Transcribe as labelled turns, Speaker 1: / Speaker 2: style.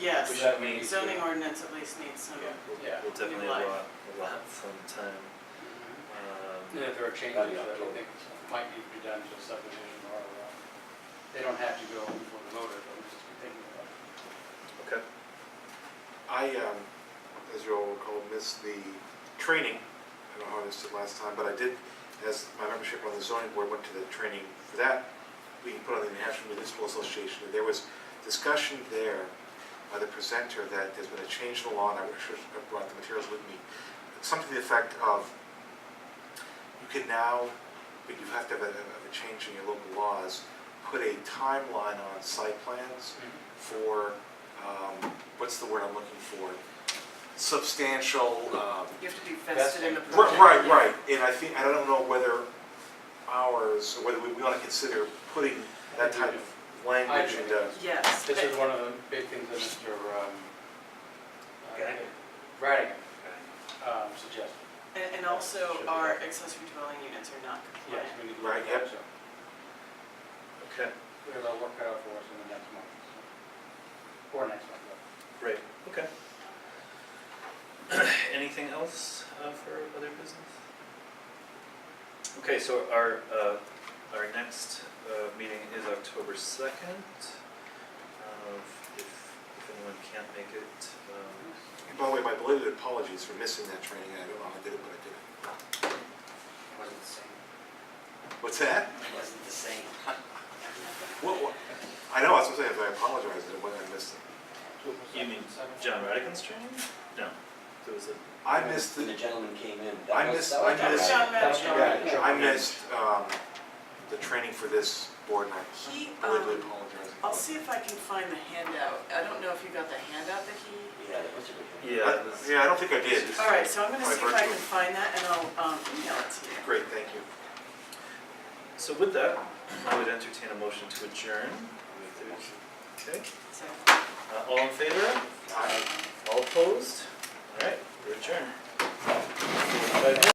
Speaker 1: Yes,
Speaker 2: Which that means-
Speaker 1: zoning ordinance at least needs some.
Speaker 2: Yeah, we'll-
Speaker 3: Yeah.
Speaker 4: We'll definitely have
Speaker 1: life.
Speaker 4: a lot from time.
Speaker 3: And
Speaker 4: Um,
Speaker 3: if there are changes that
Speaker 4: That'd be
Speaker 3: you
Speaker 4: October.
Speaker 3: think might need to be done to a subdivision or, uh, they don't have to go before the voter, but we just be thinking about it.
Speaker 4: Okay.
Speaker 2: I, um, as you all recall, missed the training, I don't know how I missed it last time, but I did, as my membership on the zoning board went to the training for that, we put on the National Municipal Association, and there was discussion there by the presenter that there's been a change in the law, and I wish I brought the materials with me, something to the effect of, you can now, but you have to have a, a change in your local laws, put a timeline on site plans
Speaker 3: Hmm.
Speaker 2: for, um, what's the word I'm looking for? Substantial, um,
Speaker 1: You have to be vested in the
Speaker 2: ri-
Speaker 1: project.
Speaker 2: right, right, and I think, I don't know whether ours, or whether we want to consider putting that type of language
Speaker 3: I do.
Speaker 2: into.
Speaker 1: Yes,
Speaker 3: This is
Speaker 1: but-
Speaker 3: one of the big things that Mr. um, uh,
Speaker 4: Okay.
Speaker 3: Radigan
Speaker 4: Okay.
Speaker 3: um, suggested.
Speaker 1: and, and also our accessory dwelling units are not
Speaker 3: Yes,
Speaker 1: compliant.
Speaker 3: we need to.
Speaker 2: Right, yep.
Speaker 3: so
Speaker 4: Okay,
Speaker 3: We have our work cut out for us in the next month. so. Or next month, but
Speaker 4: great, okay. Anything else uh, for other business? Okay, so our, uh, our next uh, meeting is October 2nd. Uh, If, if anyone can't make it, um,
Speaker 2: And by the way, my belated apologies for missing that training, I don't know how I did it, but I did it.
Speaker 3: it wasn't the same.
Speaker 2: What's that?
Speaker 3: It wasn't the same.
Speaker 2: What, what? I know, I was gonna say, I apologize, I went, I missed it.
Speaker 4: you mean John Radigan's training? No, there was a,
Speaker 2: I missed
Speaker 5: When the
Speaker 2: the,
Speaker 5: gentleman came in. that
Speaker 2: I
Speaker 5: was-
Speaker 2: missed,
Speaker 5: that
Speaker 2: I
Speaker 5: was
Speaker 1: That was
Speaker 2: missed,
Speaker 1: John
Speaker 3: That was John
Speaker 1: Radigan.
Speaker 2: yeah,
Speaker 3: Radigan.
Speaker 2: I missed, um, the training for this board, and I
Speaker 1: He,
Speaker 2: belated
Speaker 1: um,
Speaker 2: apologize.
Speaker 1: I'll see if I can find the handout. I don't know if you got the handout that he.
Speaker 5: Yeah, that was a good one.
Speaker 4: yeah,
Speaker 2: I-
Speaker 4: it was-
Speaker 2: Yeah, I don't think I did.
Speaker 1: All right, so I'm gonna
Speaker 2: By
Speaker 1: see if I
Speaker 2: virtue.
Speaker 1: can find that and I'll, um, email it to you.
Speaker 2: Great, thank you.
Speaker 4: So with that, I would entertain a motion to adjourn. Okay,
Speaker 1: So,
Speaker 4: uh, all in favor?
Speaker 2: I-
Speaker 4: All opposed? All right, we're adjourned. Bye.